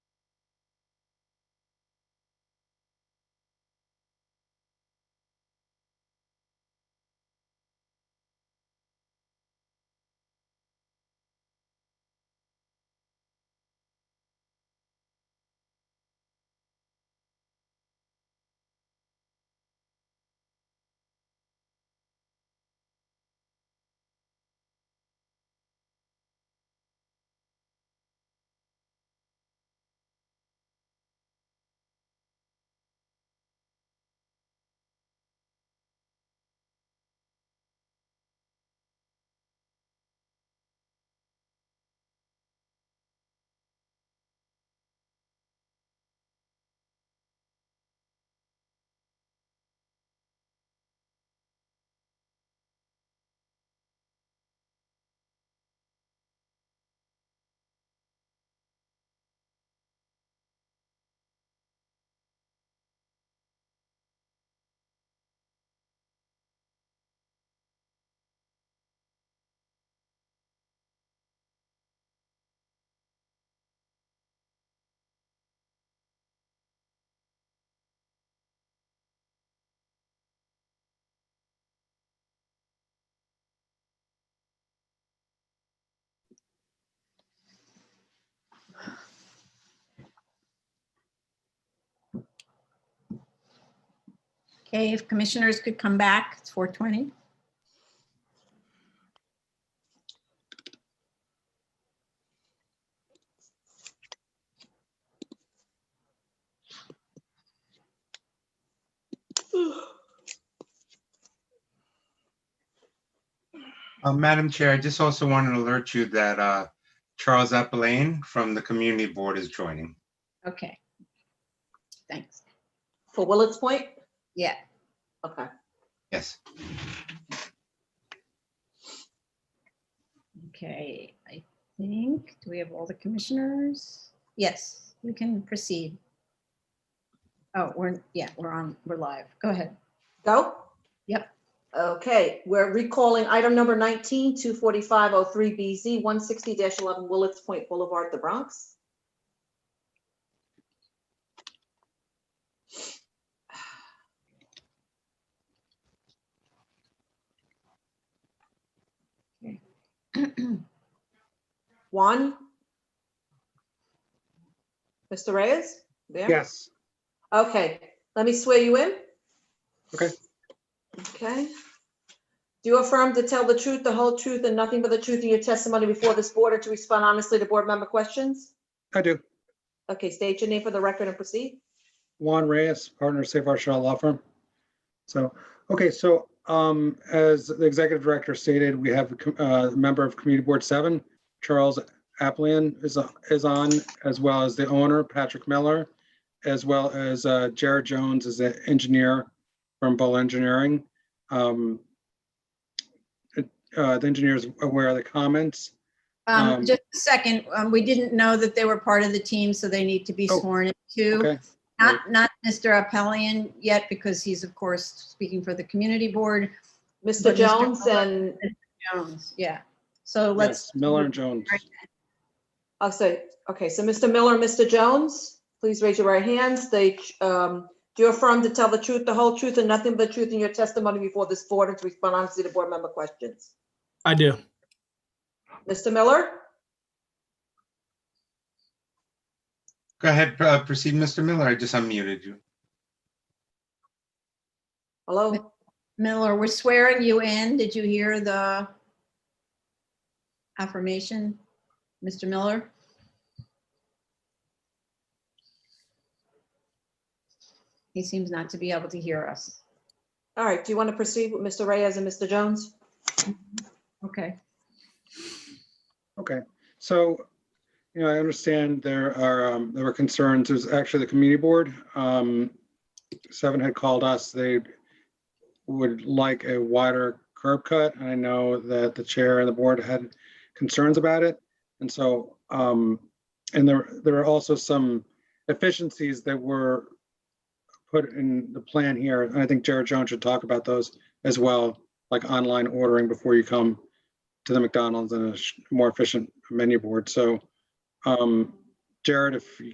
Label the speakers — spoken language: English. Speaker 1: Okay, if commissioners could come back, it's 4:20.
Speaker 2: Uh, Madam Chair, I just also want to alert you that uh, Charles Appelane from the Community Board is joining.
Speaker 1: Okay. Thanks.
Speaker 3: For Willard's Point?
Speaker 1: Yeah.
Speaker 3: Okay.
Speaker 2: Yes.
Speaker 1: Okay, I think, do we have all the commissioners? Yes, we can proceed. Oh, we're, yeah, we're on, we're live. Go ahead.
Speaker 3: Go?
Speaker 1: Yep.
Speaker 3: Okay, we're recalling item number 19, 24503BZ, 160-11 Willard's Point Boulevard, the Bronx.
Speaker 1: Um,
Speaker 3: Juan? Mr. Reyes? There?
Speaker 4: Yes,
Speaker 3: Okay, let me swear you in.
Speaker 4: Okay.
Speaker 3: Okay. Do you affirm to tell the truth, the whole truth, and nothing but the truth in your testimony before this board or to respond honestly to board member questions?
Speaker 4: I do.
Speaker 3: Okay, state your name for the record and proceed.
Speaker 4: Juan Reyes, partner, Safe Harbor Shaw Law Firm. So, okay, so um, as the executive director stated, we have a com- uh, member of Community Board Seven, Charles Appelian is, is on, as well as the owner, Patrick Miller, as well as uh, Jared Jones is an engineer from Bull Engineering. Um, it- uh, The engineer is aware of the comments.
Speaker 1: Um,
Speaker 4: Um,
Speaker 1: Just a second, um, we didn't know that they were part of the team, so they need to be
Speaker 4: Oh,
Speaker 1: sworn in too.
Speaker 4: Okay,
Speaker 1: Not, not Mr. Appelian yet, because he's of course speaking for the community board.
Speaker 3: Mr.
Speaker 1: But Mr.
Speaker 3: Jones and,
Speaker 1: Jones, yeah. So let's,
Speaker 4: yes, Miller and Jones.
Speaker 3: oh, so, okay, so Mr. Miller, and Mr. Jones, please raise your right hands. They, um, do you affirm to tell the truth, the whole truth, and nothing but the truth in your testimony before this board and to respond honestly to board member questions?
Speaker 5: I do.
Speaker 3: Mr. Miller?
Speaker 2: Go ahead, uh, proceed, Mr. Miller. I just unmuted you.
Speaker 3: Hello?
Speaker 1: Miller, we're swearing you in. Did you hear the affirmation, Mr. Miller? He seems not to be able to hear us.
Speaker 3: All right, do you want to proceed with Mr. Reyes and Mr. Jones?
Speaker 1: Okay.
Speaker 4: Okay, so, you know, I understand there are, um, there were concerns, there's actually the community board. um, Seven had called us, they would like a wider curb cut, and I know that the chair and the board had concerns about it. And so, um, and there, there are also some efficiencies that were put in the plan here, and I think Jared Jones should talk about those as well, like online ordering before you come to the McDonald's and a sh- more efficient menu board. So, um, Jared, if you